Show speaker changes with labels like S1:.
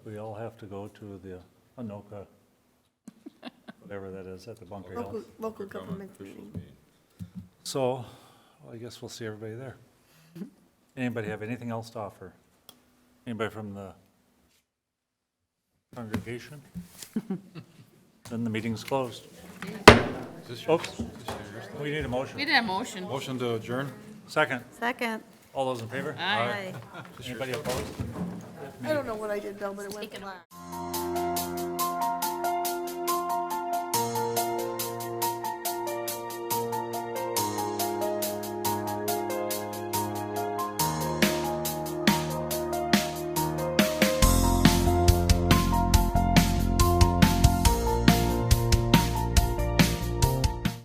S1: We all have to go to the Anoka, whatever that is, at the Bunker Hill.
S2: Local, local
S3: Government
S2: government
S3: officials
S2: meeting.
S3: meeting.
S1: So I guess we'll see everybody there. Anybody have anything else to offer? Anybody from the congregation? Then the meeting's closed.
S3: Is this your-
S1: Oops, we need a
S4: We
S1: motion.
S4: did a motion.
S3: Motion to adjourn?
S1: Second,
S2: Second.
S1: all those in favor?
S4: Aye.
S2: Aye.
S1: Anybody opposed?
S2: I don't know what I did, Bill, but it went black.